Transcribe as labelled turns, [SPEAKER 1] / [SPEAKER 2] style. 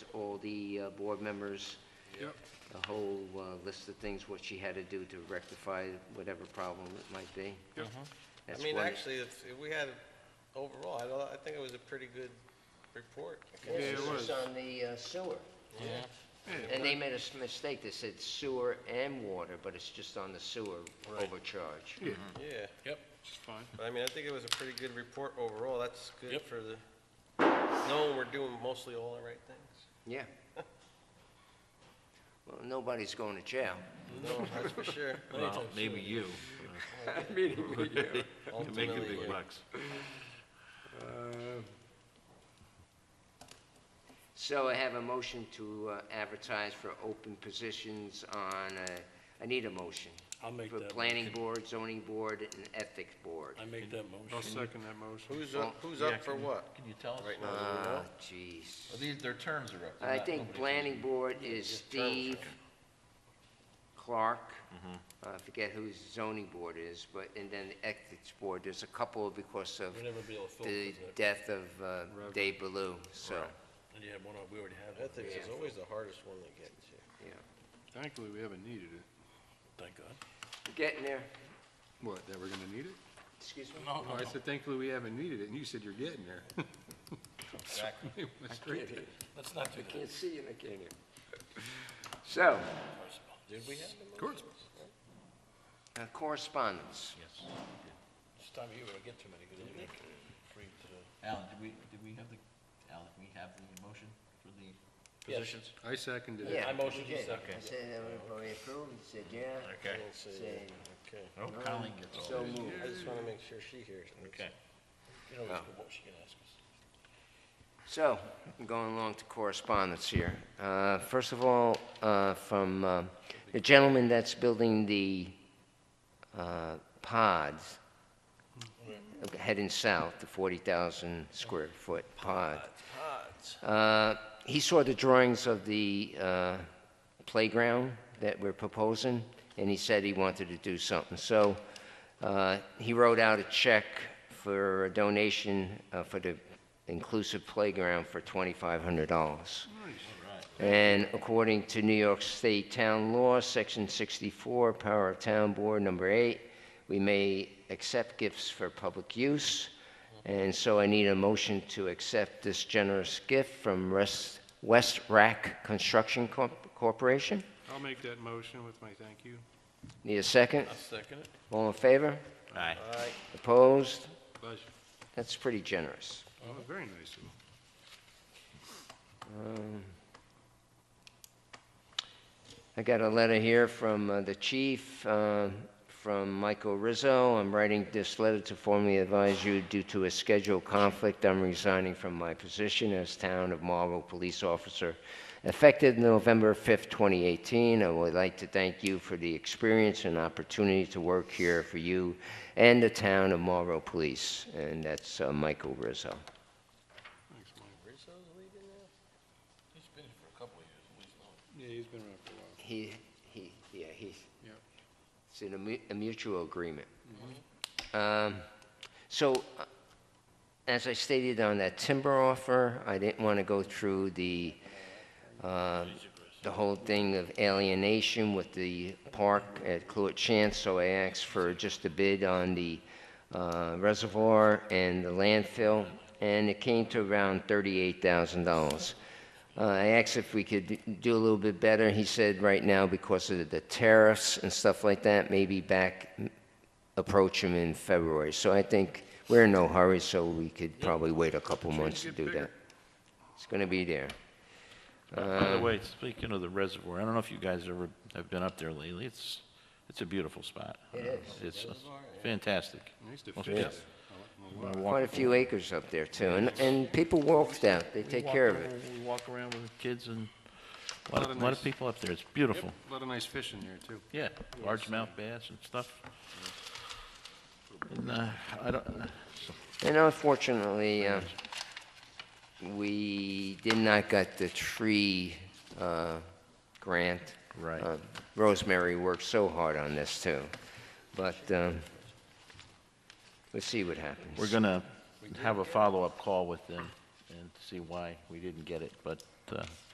[SPEAKER 1] the uh, board members,
[SPEAKER 2] Yep.
[SPEAKER 1] the whole uh, list of things, what she had to do to rectify whatever problem it might be.
[SPEAKER 2] Yep.
[SPEAKER 1] That's
[SPEAKER 3] I mean,
[SPEAKER 1] one-
[SPEAKER 3] actually, if, if we had, overall, I don't, I think it was a pretty good report.
[SPEAKER 2] Yeah, it
[SPEAKER 1] This is
[SPEAKER 2] was.
[SPEAKER 1] on the uh, sewer. And they made a s- mistake, they said sewer and water, but it's just on the sewer overcharge.
[SPEAKER 2] Yeah,
[SPEAKER 4] Hmm.
[SPEAKER 3] Yeah,
[SPEAKER 5] Yep,
[SPEAKER 2] it's fine.
[SPEAKER 3] but I mean, I think it was a pretty good report overall, that's good
[SPEAKER 5] Yep.
[SPEAKER 3] for the, knowing we're doing mostly all the right things.
[SPEAKER 1] Yeah. Well, nobody's going to jail.
[SPEAKER 3] No, that's for sure.
[SPEAKER 4] Well, maybe you. You're making
[SPEAKER 3] Ultimately,
[SPEAKER 4] big
[SPEAKER 3] yeah.
[SPEAKER 4] bucks.
[SPEAKER 2] Uh,
[SPEAKER 1] So I have a motion to uh, advertise for open positions on, uh, I need a motion.
[SPEAKER 5] I'll make
[SPEAKER 1] For
[SPEAKER 5] that
[SPEAKER 1] planning board, zoning board, and ethics board.
[SPEAKER 5] I make that
[SPEAKER 2] I'll
[SPEAKER 5] motion.
[SPEAKER 2] second that motion.
[SPEAKER 3] Who's up, who's up for what?
[SPEAKER 4] Can you tell us?
[SPEAKER 3] Right now, do we know?
[SPEAKER 1] Ah, jeez.
[SPEAKER 4] These, their terms are up. They're
[SPEAKER 1] I
[SPEAKER 4] not-
[SPEAKER 1] think
[SPEAKER 4] nobody's-
[SPEAKER 1] planning board is Steve Clark. Uh, I forget who zoning board is, but, and then the ethics board, there's a couple because of
[SPEAKER 5] We'll never be able to fill
[SPEAKER 1] the
[SPEAKER 5] it,
[SPEAKER 1] death of uh, Dave Ballou, so,
[SPEAKER 5] and you have one, we already have one,
[SPEAKER 3] Ethics is always the hardest one to get to.
[SPEAKER 1] yeah.
[SPEAKER 2] Thankfully, we haven't needed it.
[SPEAKER 5] thank God.
[SPEAKER 1] Getting there,
[SPEAKER 2] What, that we're gonna need it?
[SPEAKER 1] excuse me?
[SPEAKER 5] No,
[SPEAKER 2] Oh, I said thankfully we haven't needed it, and you said you're getting there.
[SPEAKER 3] Exactly.
[SPEAKER 2] It went straight there.
[SPEAKER 5] Let's not do that.
[SPEAKER 1] Can't see and I can't hear. So,
[SPEAKER 3] Did we have them?
[SPEAKER 2] Of course.
[SPEAKER 1] uh, correspondence.
[SPEAKER 5] This time of year, we don't get too many, because I'm gonna bring to the
[SPEAKER 4] Alan, did we, did we have the, Alan, did we have the motion for the
[SPEAKER 5] Yes.
[SPEAKER 4] positions?
[SPEAKER 2] I seconded it.
[SPEAKER 1] Yeah.
[SPEAKER 5] I motion to
[SPEAKER 1] Okay.
[SPEAKER 5] second.
[SPEAKER 1] I said, everybody approved, he said, yeah,
[SPEAKER 3] I
[SPEAKER 4] Okay.
[SPEAKER 3] didn't see
[SPEAKER 1] said,
[SPEAKER 3] it. Okay.
[SPEAKER 4] I hope Colleen gets all
[SPEAKER 1] so
[SPEAKER 4] these.
[SPEAKER 1] moved.
[SPEAKER 3] I just wanna make sure she hears. it.
[SPEAKER 4] Okay.
[SPEAKER 5] You know,
[SPEAKER 1] Oh.
[SPEAKER 5] what she can ask us.
[SPEAKER 1] So, I'm going along to correspondence here. Uh, First of all, uh, from uh, the gentleman that's building the uh, pods, heading south, the 40,000 square foot pod.
[SPEAKER 3] Pods.
[SPEAKER 1] Uh, He saw the drawings of the uh, playground that we're proposing, and he said he wanted to do something. So uh, he wrote out a check for a donation uh, for the inclusive playground for $2,500. And according to New York State Town Law, Section 64, Power of Town Board, Number 8, we may accept gifts for public use. And so I need a motion to accept this generous gift from Rest- West Rack Construction Corp- Corporation.
[SPEAKER 2] I'll make that motion with my thank you.
[SPEAKER 1] Need a second?
[SPEAKER 5] I'll second it.
[SPEAKER 1] All in favor?
[SPEAKER 4] Aye.
[SPEAKER 3] Aye.
[SPEAKER 1] Opposed?
[SPEAKER 2] Pleasure.
[SPEAKER 1] That's pretty generous.
[SPEAKER 2] Oh, very nice of him.
[SPEAKER 1] I got a letter here from uh, the chief, uh, from Michael Rizzo. I'm writing this letter to formally advise you due to a scheduled conflict, I'm resigning from my position as town of Marlborough police officer effective November 5th, 2018. I would like to thank you for the experience and opportunity to work here for you and the town of Marlborough Police. And that's uh, Michael Rizzo.
[SPEAKER 2] Thanks, Mike.
[SPEAKER 3] Rizzo's leaving now?
[SPEAKER 5] He's been here for a couple of years, at least, now.
[SPEAKER 2] Yeah, he's been around for a while.
[SPEAKER 1] He, he, yeah, he.
[SPEAKER 2] Yep.
[SPEAKER 1] It's in a mu- a mutual agreement. Um, So, uh, as I stated on that timber offer, I didn't want to go through the, uh, the whole thing of alienation with the park at Cluett Chance, so I asked for just a bid on the uh, reservoir and the landfill, and it came to around $38,000. Uh, I asked if we could do a little bit better. He said right now, because of the tariffs and stuff like that, maybe back, approach him in February. So I think we're in no hurry, so we could probably wait a couple months to
[SPEAKER 2] get
[SPEAKER 1] do
[SPEAKER 2] bigger.
[SPEAKER 1] that. It's going to be there. Uh,
[SPEAKER 4] By the way, speaking of the reservoir, I don't know if you guys ever have been up there lately. It's, it's a beautiful spot.
[SPEAKER 1] It is.
[SPEAKER 4] It's fantastic.
[SPEAKER 2] I used to
[SPEAKER 4] Must
[SPEAKER 2] fish
[SPEAKER 4] be-
[SPEAKER 2] up there.
[SPEAKER 4] I walk-
[SPEAKER 1] Quite a few acres up there, too, and, and people walked out, they take care of it.
[SPEAKER 4] We walk around with kids and a lot
[SPEAKER 2] Lot
[SPEAKER 4] of,
[SPEAKER 2] of
[SPEAKER 4] lot of
[SPEAKER 2] nice-
[SPEAKER 4] people up there. It's
[SPEAKER 2] Yep,
[SPEAKER 4] beautiful.
[SPEAKER 2] A lot of nice fish in there, too.
[SPEAKER 4] Yeah, largemouth bass and stuff. And, uh, I don't,
[SPEAKER 1] And unfortunately, uh, we did not get the tree uh, grant.
[SPEAKER 4] Right.
[SPEAKER 1] Uh, Rosemary worked so hard on this, too, but um, let's see what happens.
[SPEAKER 4] We're going to have a follow-up call with them and see why we didn't get it, but uh,